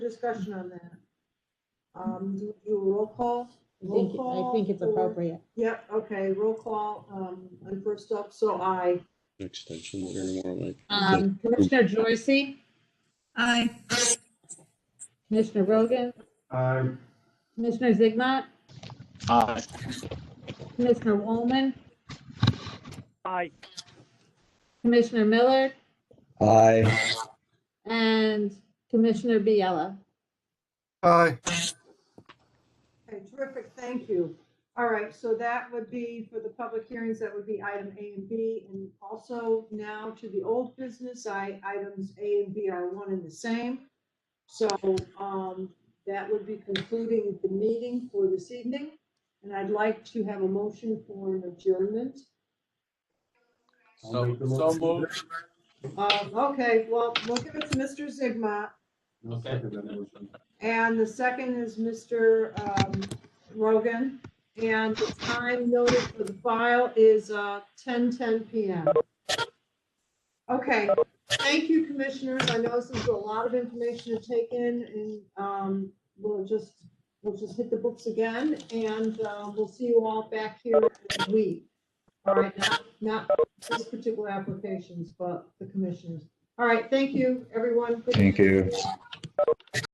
discussion on that? Um, do you roll call? I think, I Roll think it's call for- appropriate. Yep, okay, roll call, um, and first up, so I, Extension here tomorrow, Mike. Um, Commissioner Joyce, Aye. Commissioner Rogan, Aye. Commissioner Zigmont, Aye. Commissioner Woolman, Aye. Commissioner Miller, Aye. and Commissioner Biella. Aye. okay, terrific, thank you. All right, so that would be for the public hearings, that would be item A and B, and also now to the old business, I, items A and B are one and the same. So, um, that would be concluding the meeting for this evening, and I'd like to have a motion for an adjournment. I'll So, make the so motion. moved. Um, okay, well, we'll give it to Mr. Zigma, I'll second that motion. and the second is Mr. um, Rogan. And the time noted for the file is uh, 10:10 PM. Okay, thank you, commissioners. I know this is a lot of information to take in, and um, we'll just, we'll just hit the books again, and uh, we'll see you all back here in a week. All right, not, not these particular applications, but the commissioners. All right, thank you, everyone. Good Thank you.